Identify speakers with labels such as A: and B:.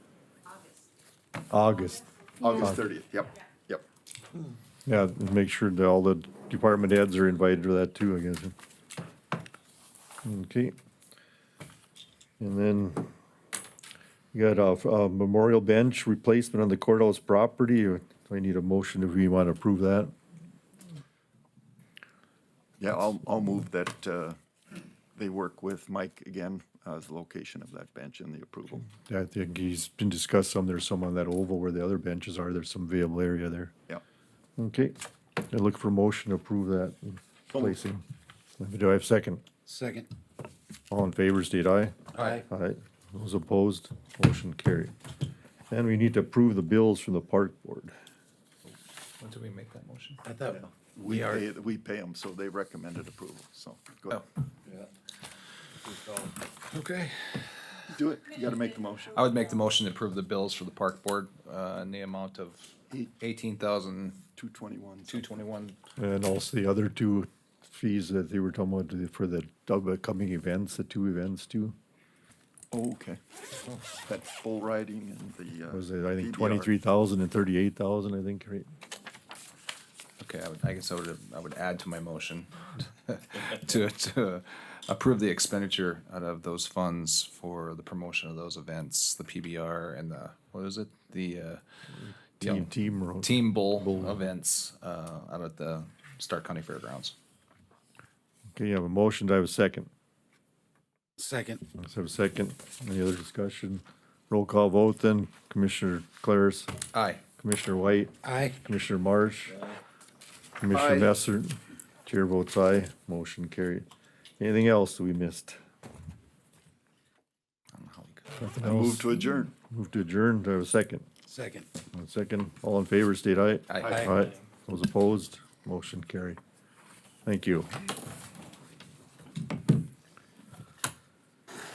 A: August.
B: August thirtieth, yep, yep.
A: Yeah, make sure that all the department heads are invited to that too, I guess. Okay. And then you got a, a memorial bench replacement on the courthouse property. Do I need a motion if we want to approve that?
B: Yeah, I'll, I'll move that, uh, they work with Mike again, uh, as the location of that bench and the approval.
A: I think he's been discussed some, there's some on that oval where the other benches are, there's some available area there.
B: Yep.
A: Okay, I look for motion to approve that placing. Do I have a second?
C: Second.
A: All in favor, state aye.
C: Aye.
A: Aye. Those opposed, motion carried. And we need to approve the bills from the park board.
D: When did we make that motion?
C: I thought.
B: We pay, we pay them, so they recommended approval, so go ahead.
D: Okay.
B: Do it, you gotta make the motion.
D: I would make the motion to approve the bills for the park board, uh, in the amount of eighteen thousand,
B: Two twenty-one.
D: two twenty-one.
A: And also the other two fees that they were talking about for the upcoming events, the two events too.
B: oh, Okay. That bull riding and the, uh.
A: Was it, I think,
B: PBR.
A: twenty-three thousand and thirty-eight thousand, I think, right?
D: Okay, I would, I guess I would, I would add to my motion to, to approve the expenditure out of those funds for the promotion of those events, the PBR and the, what is it? The, uh,
A: Team, team. road.
D: Team Bull events, uh, out at the Stark County Fairgrounds.
A: Okay, you have a motion, do I have a second?
C: Second.
A: Let's have a second. Any other discussion? Roll call vote then. Commissioner Claris,
D: Aye.
A: Commissioner White,
C: Aye.
A: Commissioner Marsh, Commissioner
B: Aye.
A: Messer. Chair votes aye. Motion carried. Anything else that we missed?
D: I don't know how we could-
A: Nothing
B: I move
A: else?
B: to adjourn.
A: Move to adjourn. Do I have a second?
C: Second.
A: One second. All in favor, state aye.
D: Aye.
C: Aye.
A: Aye. Those opposed? Motion carried. Thank you.